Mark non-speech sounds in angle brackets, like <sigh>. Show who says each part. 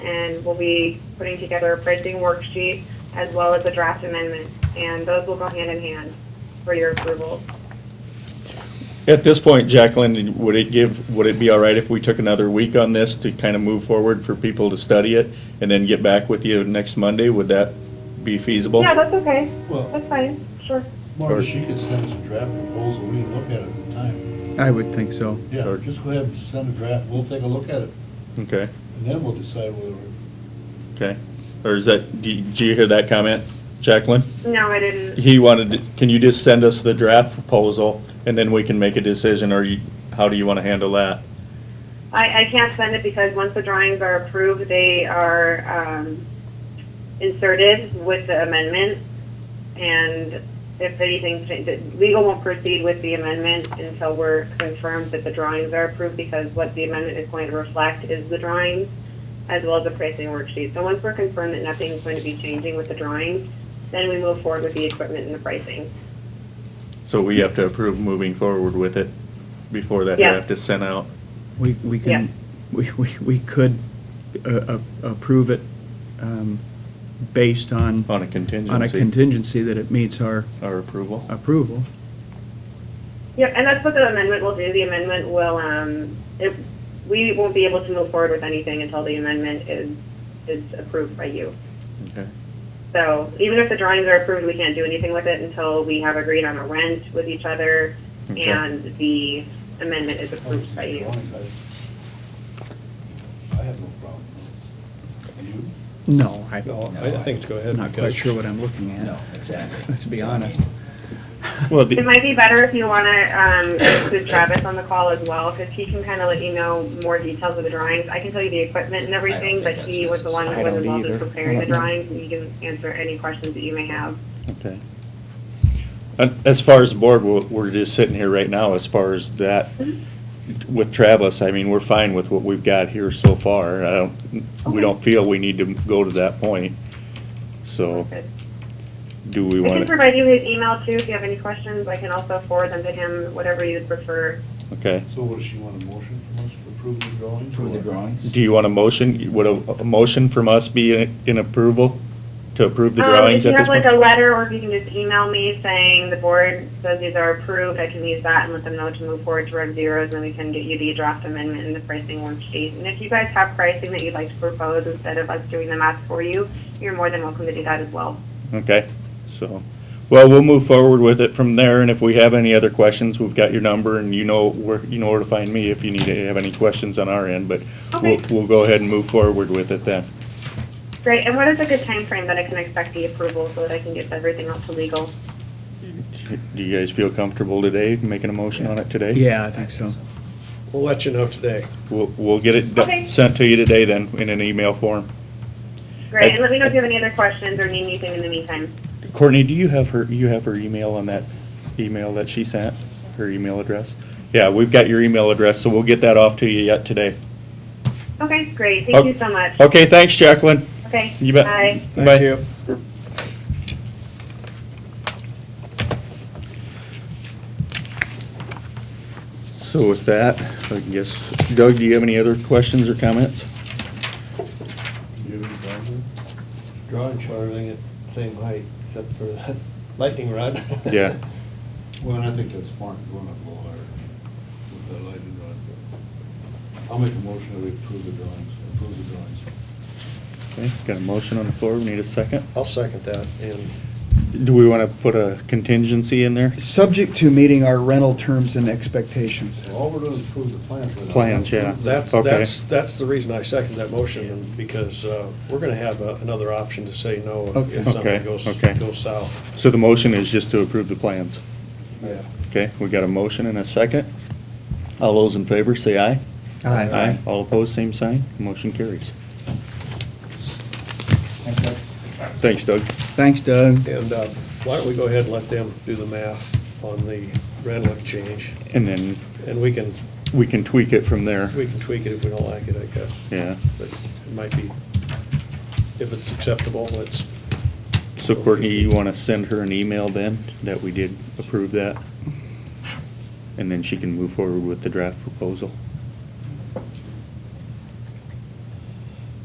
Speaker 1: and we'll be putting together a printing worksheet as well as a draft amendment, and those will go hand in hand for your approval.
Speaker 2: At this point, Jacqueline, would it give, would it be all right if we took another week on this to kind of move forward for people to study it and then get back with you next Monday? Would that be feasible?
Speaker 1: Yeah, that's okay.
Speaker 3: Well,
Speaker 1: That's fine, sure.
Speaker 3: Marty, she could send us a draft proposal, we can look at it at the time.
Speaker 4: I would think so.
Speaker 3: Yeah,
Speaker 2: Sure.
Speaker 3: just go ahead and send a draft, we'll take a look at it,
Speaker 2: Okay,
Speaker 3: and then we'll decide whether, we're-
Speaker 2: okay. Or is that, do- do you hear that comment, Jacqueline?
Speaker 1: No, I didn't.
Speaker 2: He wanted, to- can you just send us the draft proposal and then we can make a decision or you, how do you want to handle that?
Speaker 1: I, I can't send it because once the drawings are approved, they are, um, inserted with the amendment. And if anything, changes, legal won't proceed with the amendment until we're confirmed that the drawings are approved because what the amendment is going to reflect is the drawings as well as the pricing worksheet. So once we're confirmed that nothing's going to be changing with the drawings, then we move forward with the equipment and the pricing.
Speaker 2: So we have to approve moving forward with it before that
Speaker 1: Yeah.
Speaker 2: draft is sent out?
Speaker 4: We, we
Speaker 1: Yeah.
Speaker 4: can, we, we we could uh, a- approve it um, based on,
Speaker 2: On a contingency?
Speaker 4: on a contingency that it meets our
Speaker 2: Our approval?
Speaker 4: approval.
Speaker 1: Yep, and that's what the amendment will do. The amendment will, um, it, we won't be able to move forward with anything until the amendment is, is approved by you.
Speaker 4: Oh.
Speaker 2: Okay.
Speaker 1: So even if the drawings are approved, we can't do anything with it until we have agreed on a rent with each other
Speaker 2: Okay.
Speaker 1: and the amendment is approved by
Speaker 3: obviously,
Speaker 1: you.
Speaker 3: drawings, I, I have no problem. You?
Speaker 4: No, I,
Speaker 5: No, I I think it's go ahead.
Speaker 4: I'm not quite
Speaker 5: because-
Speaker 4: sure what I'm looking at.
Speaker 5: No, exactly.
Speaker 4: Let's be
Speaker 5: So, I
Speaker 4: honest.
Speaker 5: mean,
Speaker 2: Well,
Speaker 1: It
Speaker 2: the-
Speaker 1: might be better if you want to um, include Travis on the call as well, because he can kind of let you know more details of the drawings. I can tell you the equipment and everything,
Speaker 5: think
Speaker 1: but
Speaker 5: that's
Speaker 1: he was the one that
Speaker 4: necessary. I
Speaker 1: was
Speaker 4: don't
Speaker 1: involved in
Speaker 4: either.
Speaker 1: preparing the
Speaker 4: I don't know.
Speaker 1: drawings, and he can answer any questions that you may have.
Speaker 2: Okay. And As far as the board, we're, we're just sitting here right now, as far as that, with Travis, I mean, we're fine with what we've got here so far. I don't, we don't feel we need to go to that point. So,
Speaker 1: Perfect.
Speaker 2: do we
Speaker 1: I can
Speaker 2: want to,
Speaker 1: provide you his email too, if you have any questions, I can also forward them to him, whatever you prefer.
Speaker 2: okay.
Speaker 3: So what, does she want a motion from us to approve the drawings?
Speaker 5: Approve the
Speaker 3: or-
Speaker 5: drawings.
Speaker 2: Do you want a motion, would a, a motion from us be in, in approval? To approve the
Speaker 1: Um,
Speaker 2: drawings at this
Speaker 1: If you have like
Speaker 2: point?
Speaker 1: a letter, or if you can just email me saying the board says these are approved, I can use that and let them know to move forward to rev zeros, and then we can get you the draft amendment and the pricing worksheet. And if you guys have pricing that you'd like to propose instead of us doing the math for you, you're more than welcome to do that as well.
Speaker 2: Okay, so, well, we'll move forward with it from there, and if we have any other questions, we've got your number, and you know where, you know where to find me if you need to have any questions on our end, but we'll,
Speaker 1: Okay.
Speaker 2: we'll go ahead and move forward with it then.
Speaker 1: Great, and what is a good time frame that I can expect the approval so that I can get everything out to legal?
Speaker 2: Do you guys feel comfortable today, making a motion on it today?
Speaker 4: Yeah, I think so.
Speaker 5: We'll let you know today.
Speaker 2: We'll, we'll get it do-
Speaker 1: Okay.
Speaker 2: sent to you today then, in an email form.
Speaker 1: Great, and let me know if you have any other questions or need anything in the meantime.
Speaker 2: Courtney, do you have her, you have her email on that email that she sent, her email address? Yeah, we've got your email address, so we'll get that off to you yet today.
Speaker 1: Okay, great, thank you so much.
Speaker 2: Okay, thanks, Jacqueline.
Speaker 1: Okay.
Speaker 2: You bet.
Speaker 1: Bye.
Speaker 2: Bye.
Speaker 5: Thank you.
Speaker 2: So with that, I guess, Doug, do you have any other questions or comments?
Speaker 3: You have any problem with it?
Speaker 6: drawing showed everything at the same height, except for
Speaker 3: <laughs>
Speaker 6: that lightning rod.
Speaker 2: Yeah.
Speaker 3: Well, and I think that's smart, going up a little higher with the lighting rod. but I'll make a motion that we approve the drawings, approve the drawings.
Speaker 2: Okay, got a motion on the floor, we need a second.
Speaker 6: I'll second that, and
Speaker 2: Do we want to put a contingency in there?
Speaker 4: Subject to meeting our rental terms and expectations.
Speaker 3: So all we're doing is approve the plans. we're not-
Speaker 2: Plans, yeah.
Speaker 6: that's,
Speaker 2: Okay.
Speaker 6: that's, that's the reason I second that motion, because uh, we're gonna have a- another option to say no if- if
Speaker 4: Okay.
Speaker 6: something goes,
Speaker 2: Okay, okay.
Speaker 6: goes south.
Speaker 2: So the motion is just to approve the plans.
Speaker 6: Yeah.
Speaker 2: Okay, we got a motion and a second. All those in favor, say aye.
Speaker 4: Aye.
Speaker 2: Aye. All opposed, same sign. Motion carries. Thanks, Doug.
Speaker 4: Thanks, Doug.
Speaker 6: And uh, why don't we go ahead and let them do the math on the rental exchange,
Speaker 2: And then
Speaker 6: and we can,
Speaker 2: we can tweak it from there.
Speaker 6: we can tweak it if we don't like it, I guess.
Speaker 2: Yeah.
Speaker 6: But it might be, if it's acceptable, it's,
Speaker 2: So Courtney, you want to send her an email then, that we did approve that? And then she can move forward with the draft proposal?